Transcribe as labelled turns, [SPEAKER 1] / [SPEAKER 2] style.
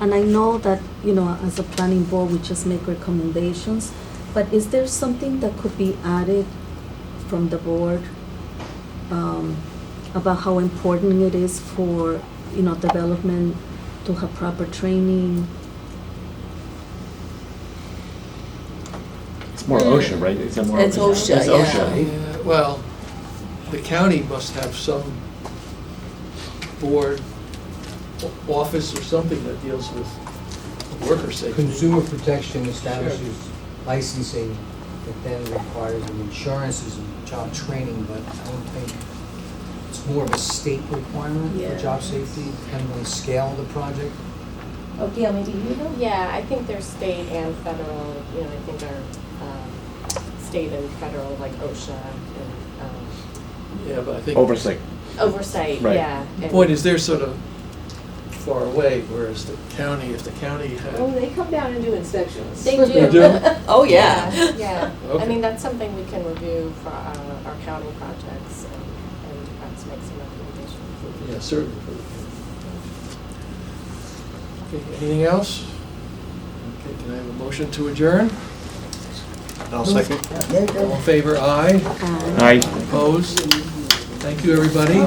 [SPEAKER 1] And I know that, you know, as a planning board, we just make recommendations, but is there something that could be added from the board um, about how important it is for, you know, development to have proper training?
[SPEAKER 2] It's more OSHA, right? It's more
[SPEAKER 3] It's OSHA,
[SPEAKER 2] It's
[SPEAKER 3] yeah.
[SPEAKER 2] OSHA.
[SPEAKER 4] Yeah, Well, the county must have some board, o- office or something that deals with worker safety.
[SPEAKER 5] Consumer protection establishes licensing that then requires an insurances and job training, but I don't think it's more of a state requirement
[SPEAKER 3] Yeah.
[SPEAKER 5] for job safety, depending on the scale of the project.
[SPEAKER 6] Oh, Gail, maybe you know?
[SPEAKER 7] Yeah, I think there's state and federal, you know, I think our um, state and federal, like OSHA and um,
[SPEAKER 4] Yeah, but I think.
[SPEAKER 2] Oversight.
[SPEAKER 7] oversight,
[SPEAKER 2] Right.
[SPEAKER 7] yeah.
[SPEAKER 4] The
[SPEAKER 7] and-
[SPEAKER 4] point is, they're sort of far away, whereas the county, if the county
[SPEAKER 6] Oh,
[SPEAKER 4] had,
[SPEAKER 6] they come down and do inspections.
[SPEAKER 7] They do.
[SPEAKER 4] They do?
[SPEAKER 3] Oh, yeah.
[SPEAKER 7] Yeah, yeah. I
[SPEAKER 4] Okay.
[SPEAKER 7] mean, that's something we can review for uh, our county projects and- and perhaps make some recommendations.
[SPEAKER 4] yeah, certainly. for the county. Okay, Anything else? Okay, can I have a motion to adjourn?
[SPEAKER 8] I'll second.
[SPEAKER 4] All in favor, aye.
[SPEAKER 1] Uh,
[SPEAKER 2] Aye.
[SPEAKER 4] Opposed? Thank you, everybody.